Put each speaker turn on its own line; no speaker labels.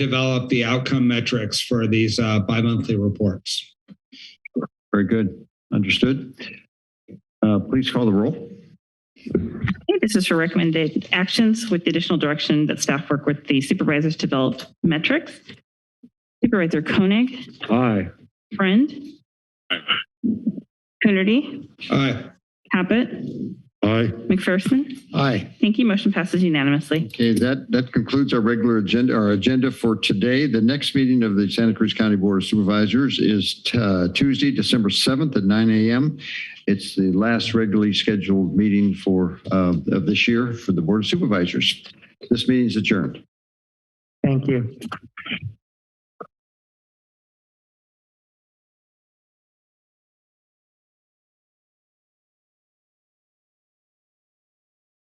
develop the outcome metrics for these uh, bi-monthly reports.
Very good. Understood. Uh, Please call the roll.
Okay, This is for recommended actions with the additional direction that staff work with the supervisors to develop metrics. Supervisor Koenig,
Aye.
Friend. Coonerty,
Aye.
Caput,
Aye.
McPherson.
Aye.
Thank you. Motion passes unanimously.
Okay, that, that concludes our regular agenda, our agenda for today. The next meeting of the Santa Cruz County Board of Supervisors is uh, Tuesday, December 7th at 9 a.m. It's the last regularly scheduled meeting for, uh, of this year for the Board of Supervisors. This meeting is adjourned.
Thank you.